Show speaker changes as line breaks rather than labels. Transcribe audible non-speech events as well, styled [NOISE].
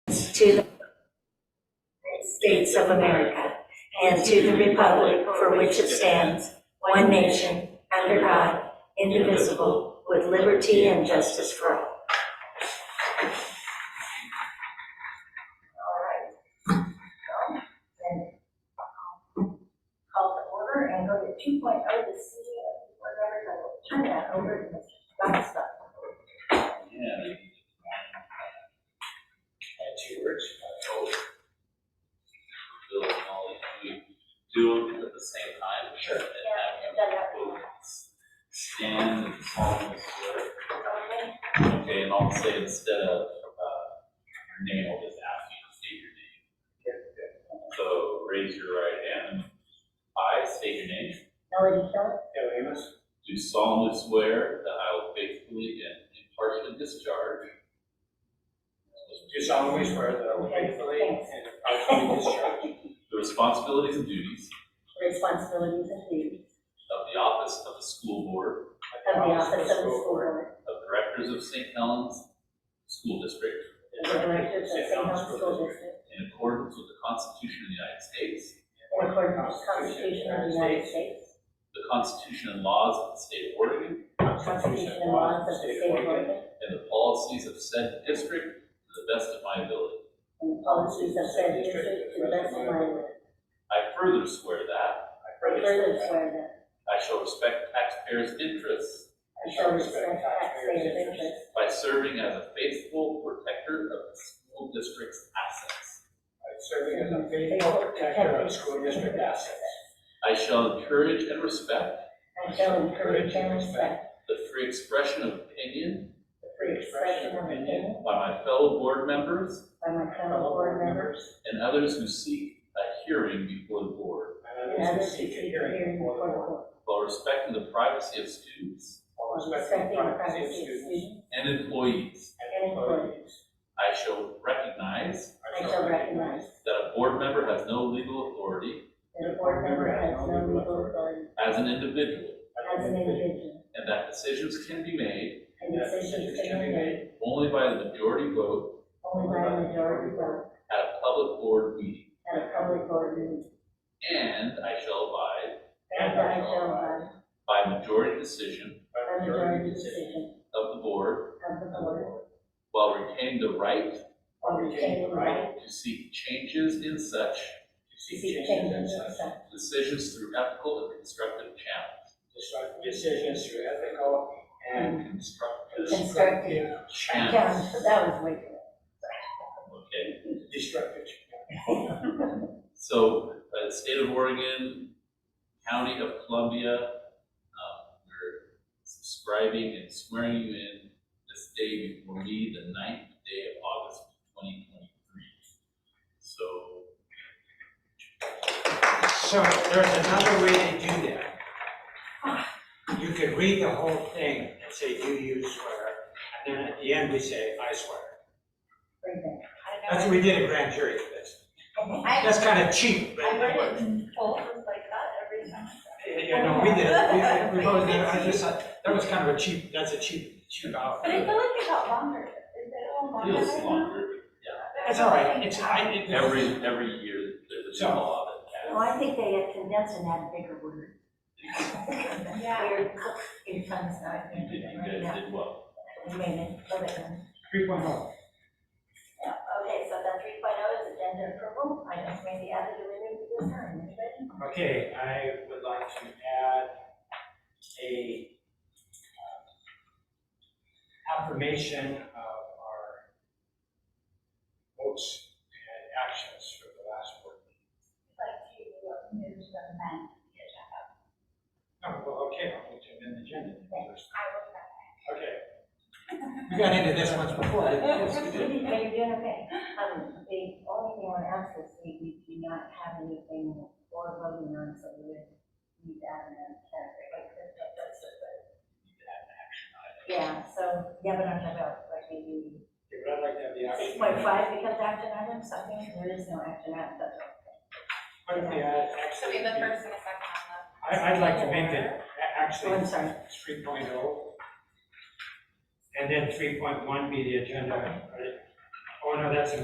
to the United States of America and to the republic for which it stands, one nation, under God, indivisible, with liberty and justice for all.
call to order and go to two point oh, the city of Fort Lauderdale. I will turn that over to Mr. Scott Stubbs.
Yeah. Had two words, I hope. Bill and Molly, we do them at the same time. Sure. And have them both stand and solemnly swear. Okay, and I'll say instead of, uh, your name, I'll just ask you to state your name. So raise your right hand. I state your name.
Melody Phillips,
Taylor Amos,
Do solemnly swear that I will faithfully and impartially discharge
do solemnly swear that I will faithfully and impartially
[LAUGHS]
discharge
the responsibilities and duties
responsibilities and duties
of the office of the school board
of the office of the school board,
of directors of St. Helens School District
the directors of St. Helens School District,
in accordance with the Constitution of the United States,
in accordance with the Constitution of the United States,
the Constitution and laws of the state of Oregon,
Constitution and laws of the state of Oregon,
and the policies of said district to the best of my ability.
and the policies of said district to the best of my ability.
I further swear that
I
Further swear that
I shall respect taxpayers' interests
I shall respect taxpayers' interests
by serving as a faithful protector of the school district's assets.
by serving as a faithful protector of school district assets.
I shall encourage and respect
I shall encourage and respect
the free expression of opinion
the free expression of opinion
by my fellow board members
by my fellow board members
and others who seek a hearing before the board
And
and
others
others
who
who
seek a
seek the
hearing before the board.
while respecting the privacy of students
While
respecting the privacy of
students
students
and employees.
and employees.
I shall recognize
I shall recognize
that a board member has no legal authority
that a board member has no legal authority
as an individual
as an individual,
and that decisions can be made
and decisions can be made
only by the majority vote
only by a majority vote
at a public board meeting.
at a public board meeting.
And I shall abide
And I shall abide
by majority decision
by the majority decision
of the board
of the board
while retaining the right
or retain the right
to seek changes in such
to seek changes in such
decisions through ethical and constructive channels.
Decisions through ethical and
Constructive.
constructive
constructive
Channels.
Yeah, that was way too.
Okay,
Destructive.
so, uh, state of Oregon, county of Columbia, um, we're subscribing and swearing you in this day before me, the ninth day of August, twenty twenty-three. So,
So there's another way to do that. You could read the whole thing and say, do you swear? And then at the end, we say, I swear.
Right there.
That's what we did at grand jury for this.
I,
That's kind of cheap, but
I
it
read
worked.
it in full, it was like that every time.
You know, we did, it. we, we both did, it. I just thought, that was kind of a cheap, that's a cheap, cheap out.
But I feel like it got longer, is it all longer?
feels
right now?
longer.
It's all right, it's, I, it.
Every, every year, there's a law
Well, I think they had condensed and had a bigger word.
Yeah.
Weird, in tongues, I
that, you
think,
did, you
right
guys
now.
did well.
We made it, but it um,
Three point oh.
Yeah, okay, so the three oh is agenda approval, I just made the other derivative this time, anybody?
Okay, I would like to add a um, affirmation of our votes and actions for the last board meeting.
Like you,
um,
uh, move the man, get up.
Oh, well, okay, I'll put it in the agenda. first.
I will not.
Okay. We got into this once before. didn't we?
Are you doing okay? Um, the only thing I want to ask is, we, we do not have anything for voting on, so we would need that in a category like this, but that's it, but. Yeah, so, yeah, but I'm talking about, like, maybe
Okay, but I'd like to have the action.
six point five becomes action item, something, there is no action item, that's all.
Why don't we add
So
action?
we have the first and a second on the.
I, I'd like to make it, a-
Oh,
actually,
I'm sorry.
three And then three point one be the agenda. right? Oh, no, that's a